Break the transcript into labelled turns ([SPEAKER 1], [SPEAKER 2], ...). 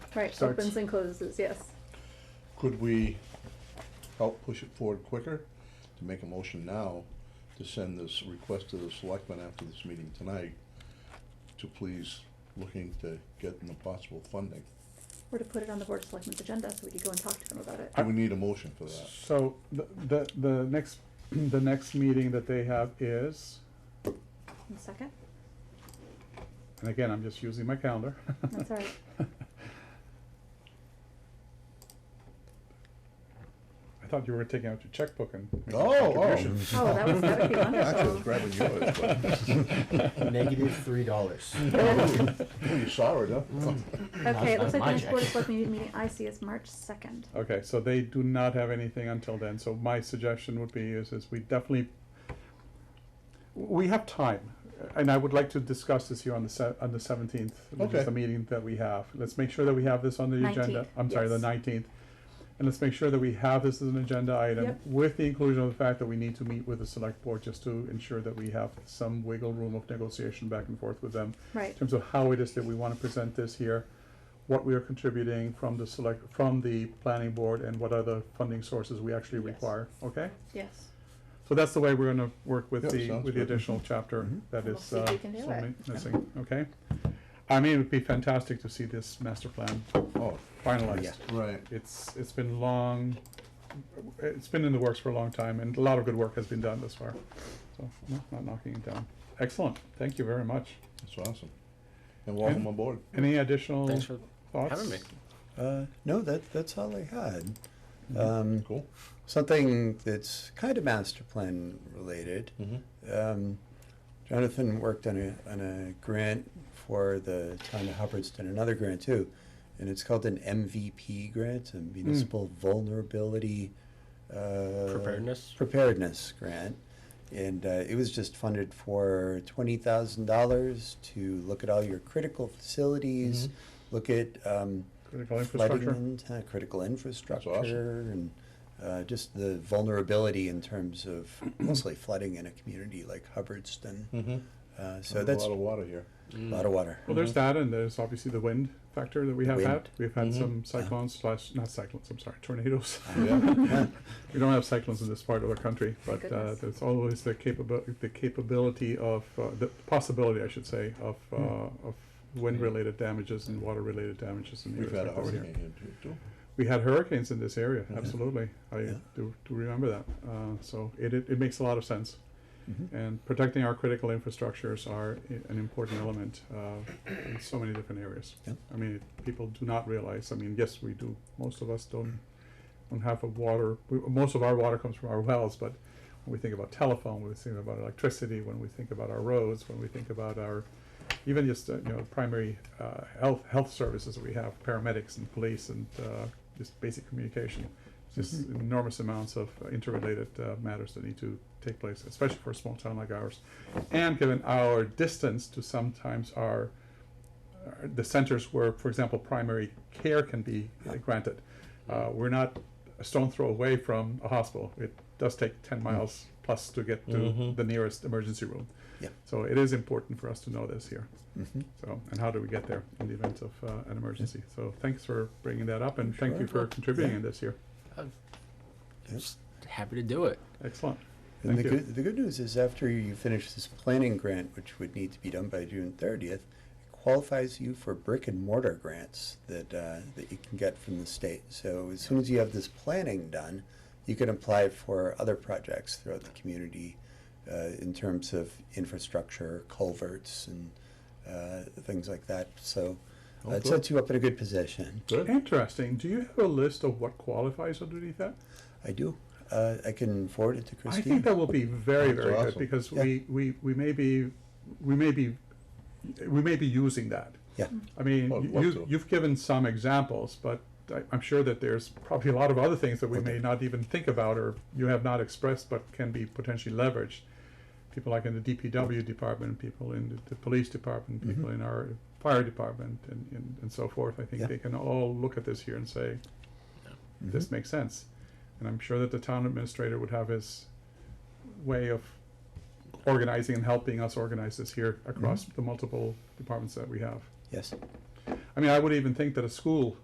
[SPEAKER 1] Right,
[SPEAKER 2] Starts-
[SPEAKER 1] opens and closes, yes.
[SPEAKER 2] Could we help push it forward quicker, to make a motion now, to send this request to the selectmen after this meeting tonight, to please looking to get the possible funding?
[SPEAKER 1] Or to put it on the Board of Selectmen's agenda so we could go and talk to them about it.
[SPEAKER 2] Do we need a motion for that?
[SPEAKER 3] So the, the, the next, the next meeting that they have is,
[SPEAKER 1] One second.
[SPEAKER 3] and again, I'm just using my calendar.
[SPEAKER 1] That's all right.
[SPEAKER 3] I thought you were taking out your checkbook and making a
[SPEAKER 2] Oh, oh.
[SPEAKER 3] contribution.
[SPEAKER 1] Oh, that was- that would be
[SPEAKER 2] Actually, I
[SPEAKER 1] wonderful.
[SPEAKER 2] was grabbing yours, but.
[SPEAKER 4] Negative three dollars.
[SPEAKER 2] Oh, you saw it, huh?
[SPEAKER 1] Okay, it
[SPEAKER 4] Not-
[SPEAKER 1] looks
[SPEAKER 4] not
[SPEAKER 1] like the
[SPEAKER 4] my
[SPEAKER 1] next Board of
[SPEAKER 4] check.
[SPEAKER 1] Selectmen meeting I see is March second.
[SPEAKER 3] Okay, so they do not have anything until then, so my suggestion would be is, is we definitely, we have time, and I would like to discuss this here on the se- on the seventeenth, which
[SPEAKER 2] Okay.
[SPEAKER 3] is the meeting that we have. Let's make sure that we have this on the agenda,
[SPEAKER 1] 19th,
[SPEAKER 3] I'm sorry, the
[SPEAKER 1] yes.
[SPEAKER 3] nineteenth. And let's make sure that we have this as an agenda item,
[SPEAKER 1] Yep.
[SPEAKER 3] with the inclusion of the fact that we need to meet with the select board, just to ensure that we have some wiggle room of negotiation back and forth with them
[SPEAKER 1] Right,
[SPEAKER 3] in terms of how it is that we want to present this here, what we are contributing from the select, from the planning board, and what other funding sources we actually
[SPEAKER 1] Yes.
[SPEAKER 3] require, okay?
[SPEAKER 1] yes.
[SPEAKER 3] So that's the way we're gonna work
[SPEAKER 2] Yeah,
[SPEAKER 3] with the,
[SPEAKER 2] sounds
[SPEAKER 3] with the
[SPEAKER 2] good. Mm-hmm.
[SPEAKER 3] additional chapter that
[SPEAKER 1] We'll
[SPEAKER 3] is,
[SPEAKER 1] see if
[SPEAKER 3] uh,
[SPEAKER 1] we can do
[SPEAKER 3] so
[SPEAKER 1] it.
[SPEAKER 3] mi- missing, okay? I mean, it would be fantastic to see this master plan
[SPEAKER 2] Oh,
[SPEAKER 3] finalized.
[SPEAKER 2] right.
[SPEAKER 3] It's, it's been long, it's been in the works for a long time, and a lot of good work has been done thus far, so, no, not knocking it down. Excellent, thank you very much.
[SPEAKER 2] That's awesome. And welcome aboard.
[SPEAKER 3] Any additional
[SPEAKER 5] Thanks
[SPEAKER 3] thoughts?
[SPEAKER 5] for having me.
[SPEAKER 6] Uh, no, that, that's all I had.
[SPEAKER 3] Mm-hmm.
[SPEAKER 6] Um,
[SPEAKER 2] Cool.
[SPEAKER 6] something that's kind of master plan related.
[SPEAKER 2] Mhm.
[SPEAKER 6] Um, Jonathan worked on a, on a grant for the town of Hubbardston, another grant too. And it's called an MVP grant, a municipal vulnerability uh,
[SPEAKER 5] Preparedness?
[SPEAKER 6] preparedness grant. And uh, it was just funded for twenty thousand dollars to look at all your critical facilities, look at um,
[SPEAKER 2] Uh,
[SPEAKER 3] Critical
[SPEAKER 6] flooding
[SPEAKER 3] infrastructure.
[SPEAKER 6] and, uh, critical infrastructure and uh, just the vulnerability in terms of mostly flooding in a community like Hubbardston.
[SPEAKER 2] Mhm.
[SPEAKER 6] Uh,
[SPEAKER 2] There's
[SPEAKER 6] so that's
[SPEAKER 2] A lot of water here.
[SPEAKER 6] a
[SPEAKER 5] Mm.
[SPEAKER 6] lot of water.
[SPEAKER 3] Well, there's that, and there's obviously the wind factor that we have
[SPEAKER 6] Wind.
[SPEAKER 3] had. We've had
[SPEAKER 2] Mhm.
[SPEAKER 3] some cyclones slash not cyclones. I'm sorry, tornadoes.
[SPEAKER 2] Yeah.
[SPEAKER 6] Mm-hmm.
[SPEAKER 3] we don't have cyclones in this part of the country, but uh,
[SPEAKER 1] Goodness.
[SPEAKER 3] there's always the capability, the capability of uh, the possibility, I should say, of uh, of wind-related damages and water-related damages in the
[SPEAKER 2] Hmm. We've
[SPEAKER 3] area
[SPEAKER 2] had a
[SPEAKER 3] over here.
[SPEAKER 2] hurricane Mm-hmm. here too, too.
[SPEAKER 3] We had hurricanes in this area.
[SPEAKER 6] Mhm.
[SPEAKER 3] Absolutely, I
[SPEAKER 6] Yeah.
[SPEAKER 3] do, do remember that. Uh, so it, it it makes a lot of sense.
[SPEAKER 6] Mhm.
[SPEAKER 3] And protecting our critical infrastructures are i- an important element uh, in so many different areas.
[SPEAKER 6] Yeah.
[SPEAKER 3] I mean, people do not realize, I mean, yes, we do, most of us don't, don't have a water, we- most of our water comes from our wells, but when we think about telephone, when we think about electricity, when we think about our roads, when we think about our, even just, uh, you know, primary uh, health, health services that we have, paramedics and police and uh, just basic communication. Just enormous amounts of interrelated uh, matters that need to take place, especially for a small town like ours. And given our distance to sometimes our, uh, the centers where, for example, primary care can be uh, granted. Uh, we're not a stone throw away from a hospital. It does take 10 miles plus to get to
[SPEAKER 2] Mhm.
[SPEAKER 3] the nearest emergency room.
[SPEAKER 6] Yeah.
[SPEAKER 3] So it is important for us to know this here.
[SPEAKER 6] Mhm.
[SPEAKER 3] So, and how do we get there in the event of uh, an emergency? So thanks for bringing that up and thank you
[SPEAKER 6] Sure.
[SPEAKER 3] for contributing
[SPEAKER 6] Yeah.
[SPEAKER 3] in this year.
[SPEAKER 5] I'm
[SPEAKER 6] Yes.
[SPEAKER 5] happy to do it.
[SPEAKER 3] Excellent.
[SPEAKER 6] And the
[SPEAKER 3] Thank you.
[SPEAKER 6] good, the good news is after you finish this planning grant, which would need to be done by June thirtieth, it qualifies you for brick and mortar grants that, uh, that you can get from the state. So as soon as you have this planning done, you can apply for other projects throughout the community, uh, in terms of infrastructure, culverts and, uh, things like that. So
[SPEAKER 3] Oh,
[SPEAKER 6] uh, it
[SPEAKER 2] Okay.
[SPEAKER 6] sets you up in a good position.
[SPEAKER 2] Good.
[SPEAKER 3] Interesting. Do you have a list of what qualifies underneath that?
[SPEAKER 6] I do, uh, I can forward it to
[SPEAKER 3] I
[SPEAKER 6] Christine.
[SPEAKER 3] think that will be very,
[SPEAKER 2] That's
[SPEAKER 3] very good
[SPEAKER 2] awesome.
[SPEAKER 3] because
[SPEAKER 6] Yeah.
[SPEAKER 3] we, we, we may be, we may be, we may be using that.
[SPEAKER 6] Yeah.
[SPEAKER 3] I mean,
[SPEAKER 2] Well, I'd
[SPEAKER 3] you-
[SPEAKER 2] love
[SPEAKER 3] you,
[SPEAKER 2] to.
[SPEAKER 3] you've given some examples, but I, I'm sure that there's probably a lot of other things that we may not even think about or you have not expressed, but can be potentially leveraged. People like in the DPW department, people in the, the police
[SPEAKER 2] Mm-hmm.
[SPEAKER 3] department, people in our fire department, and, and, and so forth. I think
[SPEAKER 6] Yeah.
[SPEAKER 3] they can all look at this here and say, this makes sense. And I'm sure that the town administrator would have his way of organizing and helping us organize this here across the multiple departments that we have.
[SPEAKER 6] Yes.
[SPEAKER 3] I mean, I would even think that a school